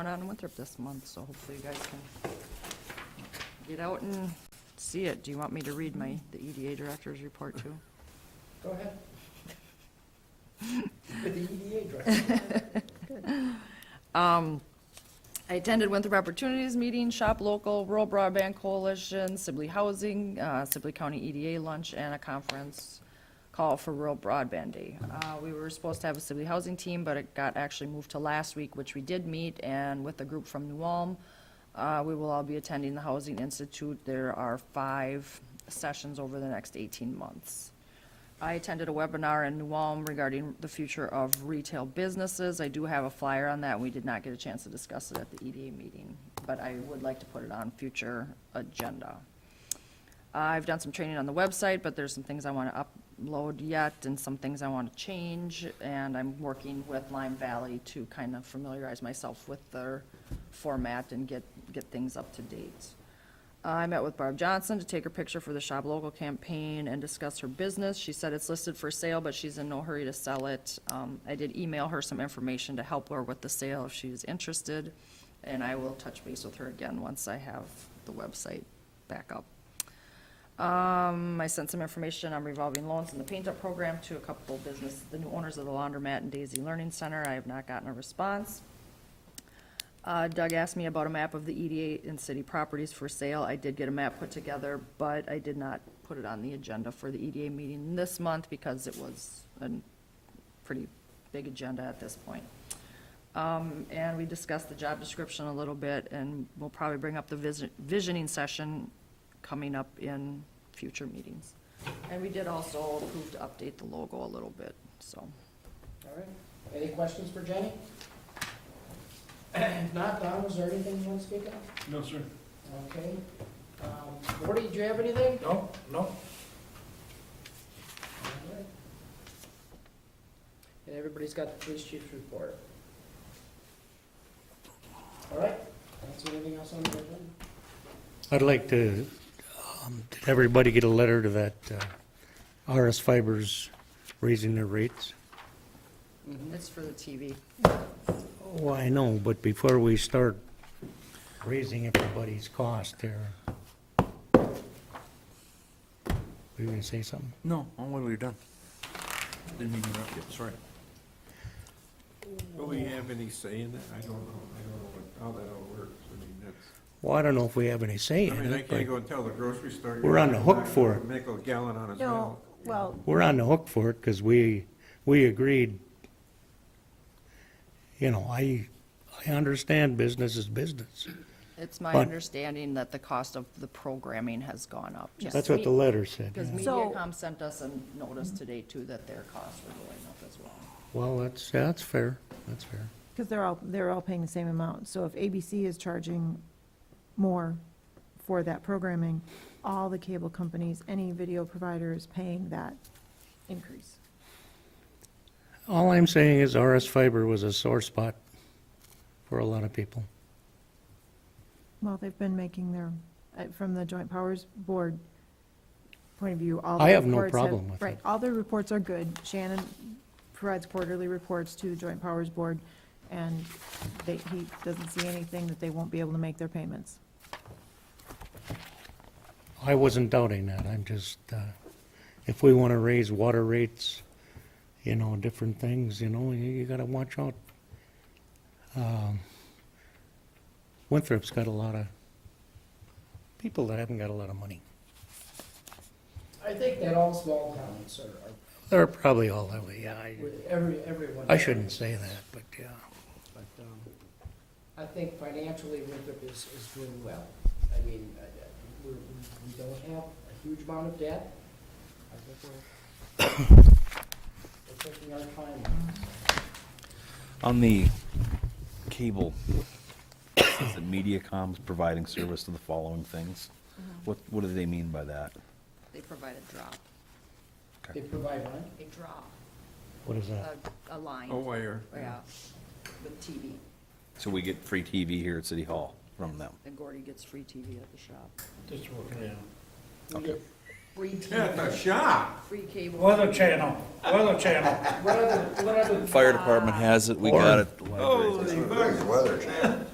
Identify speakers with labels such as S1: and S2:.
S1: on Winthrop this month, so hopefully you guys can get out and see it. Do you want me to read my, the EDA director's report too?
S2: Go ahead. With the EDA director.
S1: I attended Winthrop Opportunities Meeting, Shop Local, Rural Broadband Coalition, Sibley Housing, uh, Sibley County EDA Lunch, and a conference call for Rural Broadband Day. Uh, We were supposed to have a Sibley Housing team, but it got actually moved to last week, which we did meet, and with a group from New Ulm. uh, We will all be attending the Housing Institute. There are five sessions over the next 18 months. I attended a webinar in New Ulm regarding the future of retail businesses. I do have a flyer on that, and we did not get a chance to discuss it at the EDA meeting, but I would like to put it on future agenda. I've done some training on the website, but there's some things I want to upload yet, and some things I want to change, and I'm working with Lime Valley to kind of familiarize myself with their format and get, get things up to date. I met with Barb Johnson to take her picture for the Shop Local campaign and discuss her business. She said it's listed for sale, but she's in no hurry to sell it. Um, I did email her some information to help her with the sale if she's interested, and I will touch base with her again once I have the website back up. Um, I sent some information on revolving loans and the paint up program to a couple business, the new owners of the laundromat and Daisy Learning Center. I have not gotten a response. Uh, Doug asked me about a map of the EDA and city properties for sale. I did get a map put together, but I did not put it on the agenda for the EDA meeting this month because it was a pretty big agenda at this point. Um, and we discussed the job description a little bit, and we'll probably bring up the visi- visioning session coming up in future meetings. And we did also approve to update the logo a little bit, so.
S2: All right. Any questions for Jenny? If not, Don, was there anything you want to speak of?
S3: No, sir.
S2: Okay. Um, Gordy, do you have anything?
S3: No, no.
S2: All right. And everybody's got the police chief's report. All right. That's anything else on the agenda?
S4: I'd like to, um, did everybody get a letter to that uh, RS Fibers raising their rates?
S2: Mm-hmm.
S1: It's for the TV.
S4: Oh, I know, but before we start raising everybody's cost there, were you going to say something?
S3: No, I'm glad we're Oh, done. Didn't mean to interrupt you, sorry.
S5: Will we have any say in that? I don't know, I don't know what- how that all works, I mean, that's,
S4: Well, I don't know if we have any say
S5: I
S4: in
S5: mean, I
S4: it,
S5: can't go
S4: but
S5: and tell the grocery store.
S4: We're on the hook for it.
S5: Nickel gallon on his
S6: No,
S5: milk.
S6: well,
S4: we're on the hook for it because we, we agreed. You know, I, I understand business is business.
S1: It's my
S4: But-
S1: understanding that the cost of the programming has gone up. just
S4: That's what the letter said.
S1: Because
S4: yeah.
S6: So-
S1: MediaCom sent us a notice today too that their costs were going up as well.
S4: Well, that's, yeah, that's fair, that's fair.
S6: because they're all, they're all paying the same amount. So if ABC is charging more for that programming, all the cable companies, any video provider is paying that increase.
S4: All I'm saying is RS fiber was a sore spot for a lot of people.
S6: Well, they've been making their, uh, from the Joint Powers Board point of view, all the
S4: I have no
S6: reports
S4: problem with
S6: Right,
S4: it.
S6: all their reports are good. Shannon provides quarterly reports to the Joint Powers Board, and they, he doesn't see anything that they won't be able to make their payments.
S4: I wasn't doubting that, I'm just, uh, if we want to raise water rates, you know, different things, you know, you, you gotta watch out. Um, Winthrop's got a lot of people that haven't got a lot of money.
S2: I think that all small towns are, are-
S4: They're probably all that way, yeah, I,
S2: with every, everyone.
S4: I shouldn't say that, but yeah.
S2: But um, I think financially, Winthrop is, is doing well. I mean, I- I- we're- we we don't have a huge amount of debt. I think we're, we're taking our time.
S7: On the cable, it says that MediaCom's providing service to the following things. What, what do they mean by that?
S1: They provide a drop,
S2: They provide money.
S1: a drop,
S4: What is
S1: a,
S4: that?
S1: a line.
S5: A wire.
S1: Yeah, with TV.
S7: So we get free TV here at City Hall from them.
S1: And Gordy gets free TV at the shop.
S3: Just working it
S2: We get free
S5: At the
S2: TV,
S5: shop,
S1: Free cable.
S3: Weather channel, weather channel.
S2: what other, what other
S7: Fire department has it, we got it.
S5: holy.
S8: Where's the weather